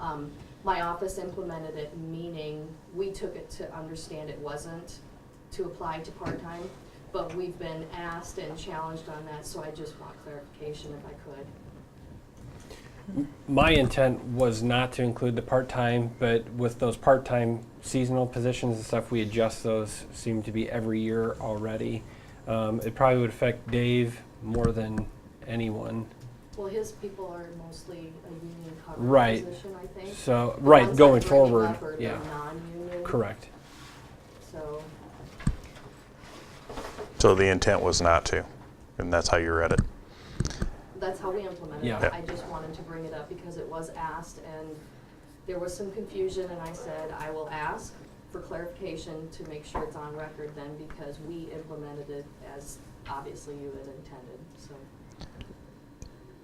Um, my office implemented it, meaning we took it to understand it wasn't to apply to part-time, but we've been asked and challenged on that, so I just want clarification if I could. My intent was not to include the part-time, but with those part-time seasonal positions and stuff, we adjust those, seem to be every year already. Um, it probably would affect Dave more than anyone. Well, his people are mostly a union Right. covered position, I think. So, right, Ones going that Grady forward, Hubbard are yeah, non-union, correct. So, So the intent was not to, and that's how you read it. that's how we implemented Yeah. it. Yeah. I just wanted to bring it up because it was asked and there was some confusion and I said, I will ask for clarification to make sure it's on record then because we implemented it as obviously you had intended, so.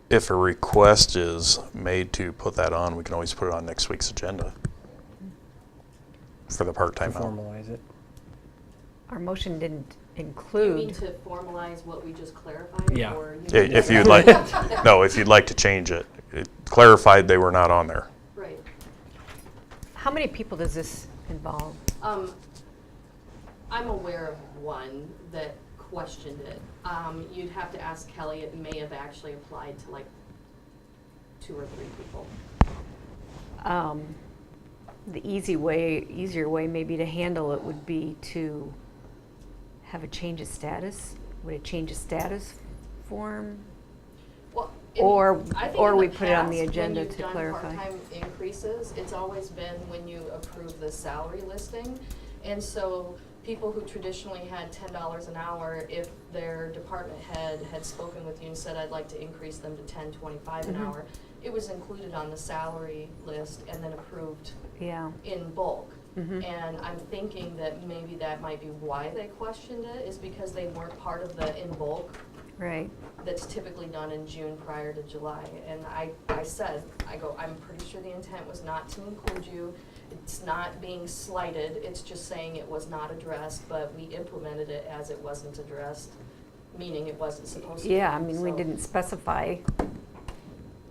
If a request is made to put that on, we can always put it on next week's agenda for the To part-time help. formalize it. Our motion didn't You mean include, to formalize what we just clarified? Yeah. or you I- mean- If you'd like, no, if you'd like to change it, it clarified they were not on there. Right. how many people does this involve? Um, I'm aware of one that questioned it. Um, you'd have to ask Kelly, it may have actually applied to like two or three people. Um, The easy way, easier way maybe to handle it would be to have a change of status, would a change of status form? Well, in- Or- I think or in the we put it on past, the when agenda you've to done clarify. part-time increases, it's always been when you approve the salary listing. And so people who traditionally had ten dollars an hour, if their department head had spoken with you and said, I'd like to increase them to ten twenty-five an Mhm. hour, it was included on the salary list and then approved Yeah. in bulk. Mhm. And I'm thinking that maybe that might be why they questioned it, is because they weren't part of the in bulk Right. that's typically done in June prior to July. And I, I said, I go, I'm pretty sure the intent was not to include you. It's not being slighted, it's just saying it was not addressed, but we implemented it as it wasn't addressed, meaning it wasn't supposed to be. Yeah, I mean, we So, didn't specify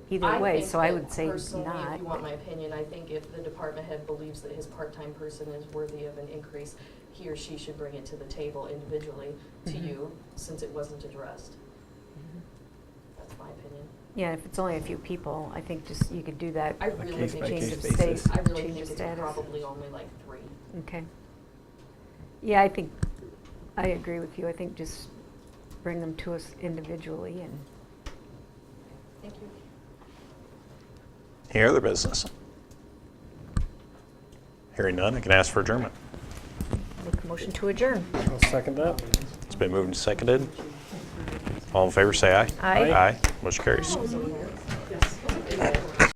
either I way, think so I that would say Personally, if you want not. my opinion, I think if the department head believes that his part-time person is worthy of an increase, he or she should bring it to the table individually to Mhm. you, since it wasn't addressed. That's my opinion. Yeah, if it's only a few people, I think just, you could do that. I really case think it's- by Change case of basis. state, I really change think it's of status. probably only like three. Okay. Yeah, I think, I agree with you. I think just bring them to us individually and, Thank you. Any other business? Hearing none, I can ask for adjournment. Make a motion to adjourn. I'll second that. It's been moved and seconded. All in favor, say aye. Aye. Aye, motion carries. That was okay.